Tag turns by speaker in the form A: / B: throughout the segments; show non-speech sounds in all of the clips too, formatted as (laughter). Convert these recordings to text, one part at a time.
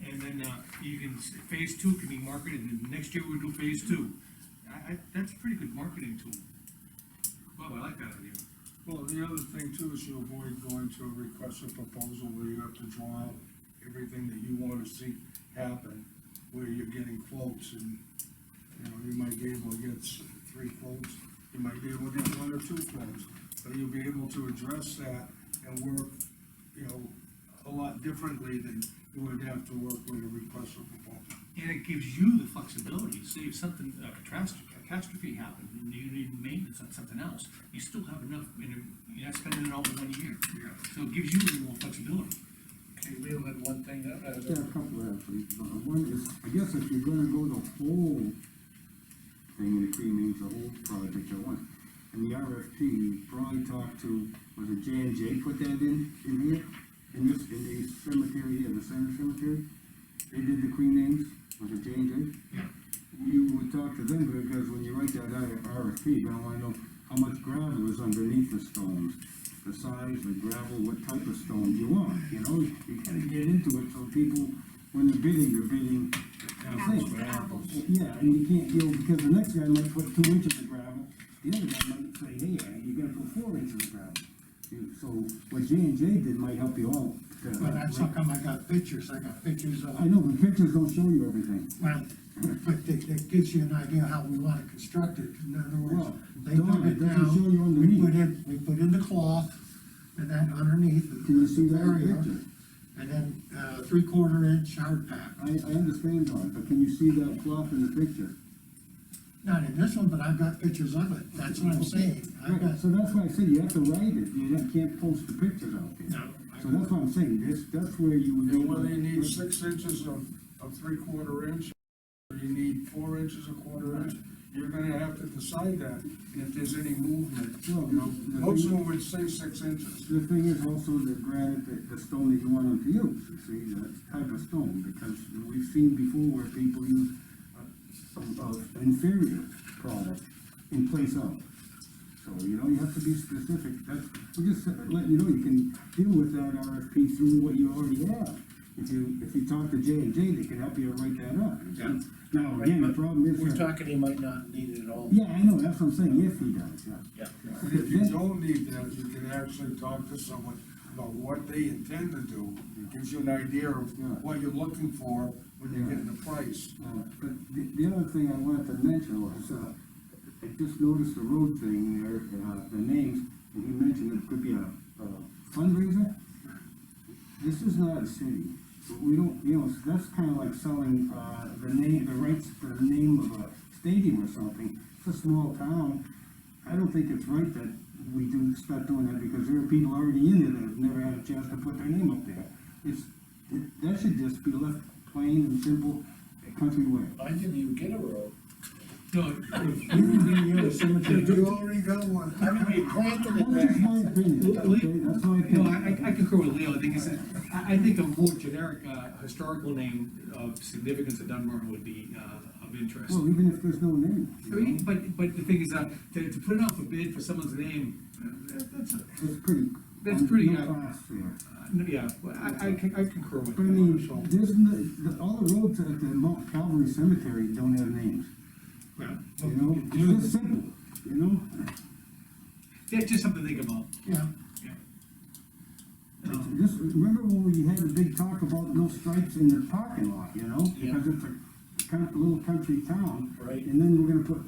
A: then, uh, you can, s- phase two can be marketed, and next year we do phase two. I, I, that's a pretty good marketing tool. Bob, I like that idea.
B: Well, the other thing too is you avoid going to a request for proposal where you have to draw out everything that you want to see happen, where you're getting quotes and, you know, you might be able to get s- three quotes, you might be able to get one or two quotes, but you'll be able to address that and work, you know, a lot differently than you would have to work with a request for proposal.
A: And it gives you the flexibility, say if something, uh, catastrophe, catastrophe happened, and you need maintenance on something else, you still have enough, and you're not spending it all in one year.
B: Yeah.
A: So it gives you a little more flexibility.
C: Okay, Leo had one thing, uh,
D: Yeah, a couple of things, but one is, I guess if you're gonna go the whole thing and pre-name the whole project at once, and the RFP, you probably talk to, was it J and J put that in, in here? In this, in the cemetery here, the center cemetery, they did the Queen names, was it J and J?
A: Yeah.
D: You would talk to them, because when you write that I- RFP, you don't wanna know how much gravel is underneath the stones, the size, the gravel, what type of stone you want, you know? You gotta get into it, so people, when they're bidding, they're bidding.
E: Apples to apples.
D: Yeah, and you can't, you know, because the next guy might put two inches of gravel, the other guy might say, hey, you gotta put four inches of gravel. You- So what J and J did might help you all. to-
C: but that's how come I got pictures, I got pictures of,
D: I know, but pictures don't show you everything.
C: well, but that, that gives you an idea how we wanna construct it, in other words,
D: Well,
C: they
D: don't,
C: dug
D: it
C: it
D: doesn't show you
C: down, we
D: underneath.
C: put in, we put in the cloth, and then underneath. the-
D: Can you see that
C: area,
D: picture?
C: And then, uh, three-quarter inch hard pack,
D: I, I understand that, but can you see that cloth in the picture?
C: not in this one, but I've got pictures of it, that's what I'm saying, I've got,
D: Right, so that's why I said you have to write it, you don't- can't post the pictures out there.
C: No.
D: So that's what I'm saying, that's, that's where you would.
B: And whether you need six inches of, of three quarter inch, or you need four inches of quarter inch, you're gonna have to decide that, and if there's any movement, you know, most of them would say six inches.
D: The thing is also the granite, the, the stone that you want them to use, you see, that type of stone, because we've seen before where people use uh, some of inferior product in place of. So, you know, you have to be specific, that's, we're just letting you know, you can deal with that RFP through what you already have. If you, if you talk to J and J, they can help you write that up.
C: Yeah.
D: Now, again, the problem is.
C: we're
D: that-
C: talking, he might not need it at all.
D: Yeah, I know, that's what I'm saying, if he does, yeah.
C: Yeah.
B: And if you don't need that, you can actually talk to someone about what they intend to do, It gives you an idea of what you're looking for when you're getting the price.
D: Uh, But the, the other thing I wanted to mention was, uh, I just noticed the road thing there, uh, the names, and he mentioned it could be a a fundraiser. This is not a city, we don't, you know, that's kinda like selling, uh, the name, the rights to the name of a stadium or something. It's a small town, I don't think it's right that we do, start doing that, because there are people already in there that have never had a chance to put their name up there. It's, it- that should just be left plain and simple, a country way.
C: I didn't even get a road.
A: No, (laughs)
B: You already got one.
C: I mean, we planted it
D: That's just
C: there.
D: my opinion, okay, that's my
A: No, I,
D: opinion.
A: I- I concur with Leo, I think it's, I, I think a more generic, uh, historical name of significance of Dunbar would be, uh, of interest.
D: Well, even if there's no name,
A: I mean, But, but the thing is, uh, to, to put it out for bid for someone's name, uh, that's, uh,
D: it's pretty.
A: That's pretty,
D: no
A: uh,
D: class there.
A: no, yeah, well, I, I con- I concur with
D: But I
A: that.
D: mean,
A: so,
D: there's, no- the, all the roads at the Mount Calvary Cemetery don't have names,
A: yeah.
D: you know, it's just simple, you know?
A: Yeah, just something to think about,
C: Yeah.
A: yeah. Um,
D: Just, remember when we had a big talk about no stripes in the parking lot, you know?
A: Yeah.
D: Because it's a kind of little country town.
C: Right.
D: And then we're gonna put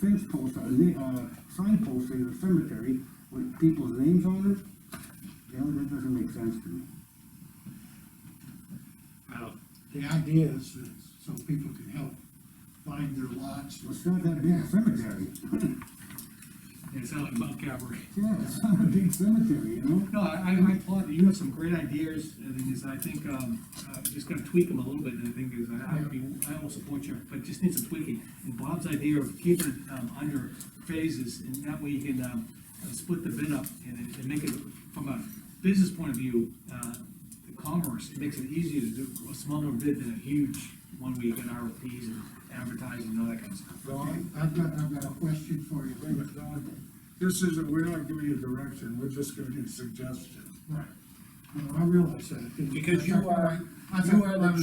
D: fence posts, uh, na- uh, sign posts in the cemetery with people's names on it. You know, that doesn't make sense to me.
C: Well, the idea is that so people can help find their lots.
D: It's not that big a cemetery. (laughs)
A: yeah, It's not like Mount Calvary.
D: Yeah, it's not a big cemetery, you know?
A: No, I, I applaud you, you have some great ideas, and then is, I think, um, uh, just gotta tweak them a little bit, and I think is, I, I'd be, I will support you, but just need some tweaking. And Bob's idea of keeping it, um, under phases, and that way you can, um, uh, split the bid up and, and make it, from a business point of view, uh, the commerce, it makes it easier to do a smaller bid than a huge one where you get RFPs and advertising and all that kind of stuff.
B: Don,
C: I've got, I've got a question for you.
B: wait a minute, Don, this isn't, we're not giving you direction, we're just giving you suggestions.
C: Right. No, I realize that.
F: Because you are-
C: I
F: you are the
C: thought-